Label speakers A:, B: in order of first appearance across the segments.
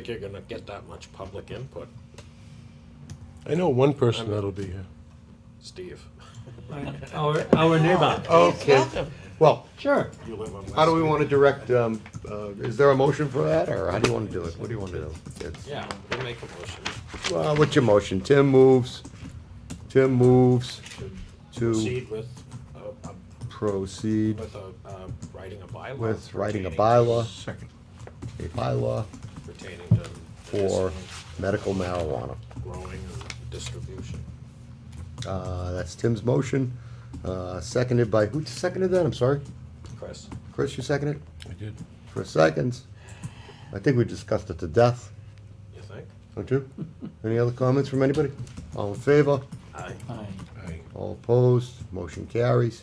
A: think you're gonna get that much public input,
B: I know one person that'll be here.
A: Steve.
C: Our, our neighbor.
D: Okay, well,
C: Sure.
A: You live on
D: how do we
A: West-
D: wanna direct, um, uh, is there a motion for that, or how do you wanna do it? What do you wanna do? It's-
A: Yeah, we'll make a motion.
D: Well, what's your motion? Tim moves, Tim moves
A: to
D: to
A: Proceed with, uh, a-
D: proceed
A: with a, uh, writing a bylaw.
D: with writing a
A: pertaining to-
D: bylaw. A bylaw
A: Pertaining to.
D: for
A: medicinal
D: medical marijuana.
A: Growing and distribution.
D: Uh, that's Tim's motion, uh, seconded by, who seconded that? I'm sorry.
A: Chris?
D: Chris, you seconded?
B: I did.
D: For seconds. I think we discussed it to death,
A: You think?
D: don't you? Oh, Any other comments from anybody? All in favor?
A: Aye.
C: Fine.
B: I
D: All opposed? Motion carries.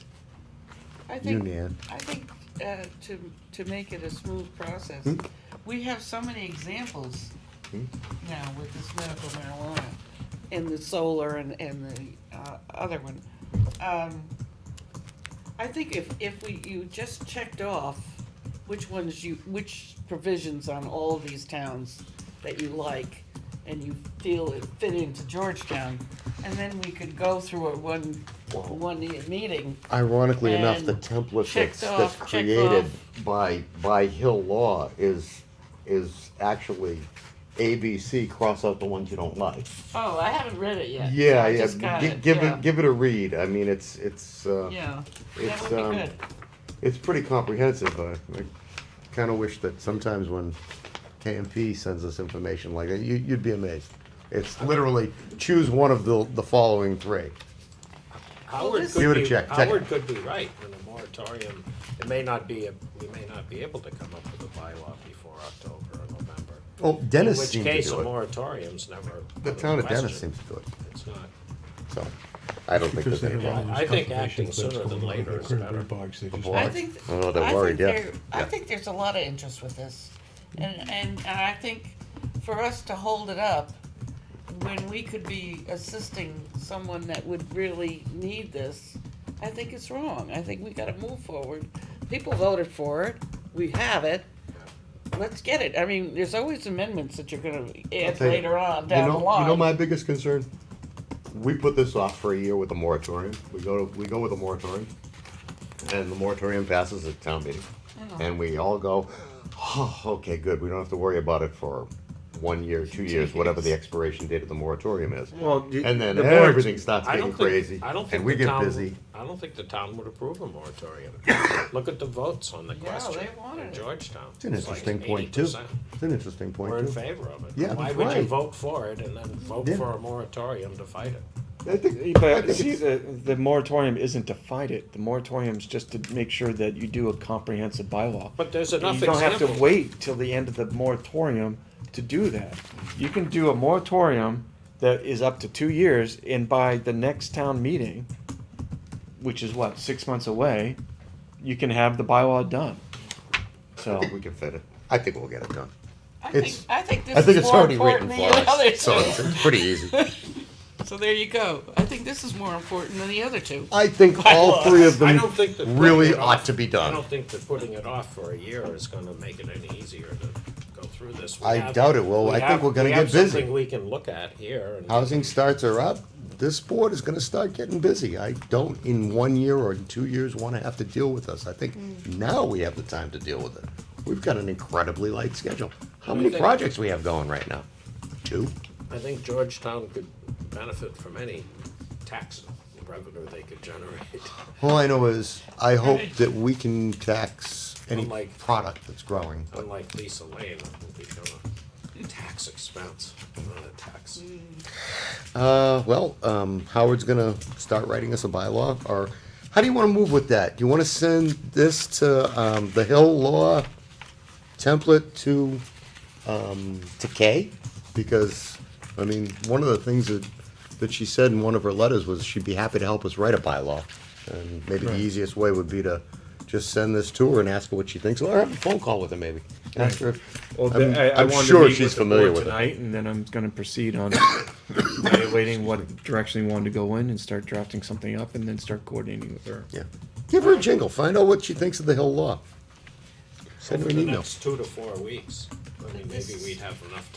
E: I
D: You,
E: think,
D: Nan.
E: I think, uh, to, to make it a smooth process,
D: Hmm?
E: we have so many examples
D: Hmm?
E: now with this medical marijuana and the solar and, and the, uh, other one. Um, I think if, if we, you just checked off which ones you, which provisions on all these towns that you like and you feel it fit into Georgetown, and then we could go through it one, one meeting
D: Ironically enough, the
E: And
D: template that's,
E: checked
D: that's
E: off, checked
D: created by, by Hill Law is, is actually ABC, cross out the ones you don't like.
E: Oh, I haven't read it yet.
D: Yeah,
E: I
D: yeah,
E: Just got
D: gi-
E: it.
D: give
E: yeah.
D: it, give it a read, I mean, it's, it's, uh,
E: Yeah,
D: it's,
E: that would be
D: um,
E: good.
D: it's pretty comprehensive. I, I kind of wish that sometimes when KMP sends us information like that, you, you'd be amazed. It's literally choose one of the the following three.
A: Howard
E: this-
A: could be.
D: Give it a check, check it.
A: Howard could be right in a moratorium. It may not be, a- we may not be able to come up with a bylaw before October or November.
D: Oh, Dennis
A: In
D: seemed
A: which
D: to
A: case, a
D: do it.
A: moratorium's never.
D: The
A: out
D: town of
A: question.
D: Dennis seems to do it.
A: It's not.
D: So I don't think
B: Because
D: there's
B: they
D: any
B: have all
D: problem.
A: I
B: these
A: think
B: complications
A: acting
B: that's
A: sooner than
B: going on
A: later
B: with
A: is
B: current
A: better.
B: bird bogs, they just-
D: Boy.
E: I think.
D: I don't know, they're
E: I
D: worried,
E: Think
D: yeah.
E: there- I
D: Yeah.
E: think there's a lot of interest with this, and and and I think for us to hold it up when we could be assisting someone that would really need this, I think it's wrong. I think we got to move forward. People voted for it. We have it. Let's get it. I mean, there's always amendments that you're going to
D: I'll
E: add
D: tell you,
E: later on down
D: you know,
E: the line.
D: You know my biggest concern? We put this off for a year with a moratorium. We go to, we go with a moratorium. And the moratorium passes at town meeting. And we all go, oh, okay, good, we don't have to worry about it for one year, two years, whatever the expiration date of the moratorium is.
B: Well, you-
D: And then
B: the board-
D: everything starts
A: I don't
D: getting
A: think,
D: crazy,
A: I don't think
D: and we
A: the
D: get
A: town,
D: busy.
A: I don't think the town would approve a moratorium. Look at the votes on the
E: Yeah,
A: question
E: they wanted
A: in
E: it.
A: Georgetown.
D: It's an
A: like
D: interesting point too.
A: 80%.
D: It's an interesting
A: We're in
D: point too.
A: favor of it.
D: Yeah,
A: Why
D: that's
A: would you
D: right.
A: vote for it and then vote
D: Yeah.
A: for a moratorium to fight it?
D: I think, I
F: But
D: think
F: see,
D: it's-
F: the, the moratorium isn't to fight it. The moratorium's just to make sure that you do a comprehensive bylaw.
A: But there's
F: And
A: enough
F: You don't have to
A: examples.
F: wait till the end of the moratorium to do that. You can do a moratorium that is up to two years, and by the next town meeting, which is what, six months away, you can have the bylaw done.
D: I
F: So,
D: think we can fit it. I think we'll get it done.
E: I think,
D: It's-
E: I think this
D: I think
E: is
D: it's
E: more
D: already written
E: important
D: for
E: than the other
D: us, so
E: two.
D: it's it's pretty easy.
E: So there you go. I think this is more important than the other two.
D: I think all
E: Bylaws.
D: three of
A: I
D: them
A: don't think that putting
D: really
A: it off-
D: ought to be
A: I
D: done.
A: don't think that putting it off for a year is gonna make it any easier to go through this. We
D: I
A: have-
D: doubt it will.
A: we
D: I think
A: have-
D: we're gonna
A: we have
D: get busy.
A: Something we can look at here and.
D: Housing starts are up. This board is gonna start getting busy. I don't, in one year or in two years, wanna have to deal with this. I think now we have the time to deal with it. We've got an incredibly light schedule. How
A: I
D: many
A: think-
D: projects we have going right now? Two?
A: I think Georgetown could benefit from any tax revenue they could generate.
D: All I know is, I hope that we can tax any
A: Unlike-
D: product that's growing.
A: Unlike Lisa Lane, it will become a tax expense, not a tax.
D: Uh, well, um, Howard's gonna start writing us a bylaw, or, how do you wanna move with that? Do you wanna send this to, um, the Hill Law template to, um, to Kay? Because, I mean, one of the things that, that she said in one of her letters was she'd be happy to help us write a bylaw. And maybe the easiest way would be to just send this to her and ask her what she thinks, or have a phone call with her maybe. Ask her, if-
F: well,
D: I'm-
F: I, I
D: I'm
F: wanted
D: sure
F: to meet
D: she's
F: with the
D: familiar
F: board
D: with it.
F: tonight, and then I'm going to proceed on evaluating what direction we wanted to go in, and start drafting something up, and then start coordinating with her.
D: yeah, give her a jingle, find out what she thinks of the Hill Law. Send her
A: over
D: an
A: the
D: email.
A: next two to four weeks. I mean, maybe we'd have enough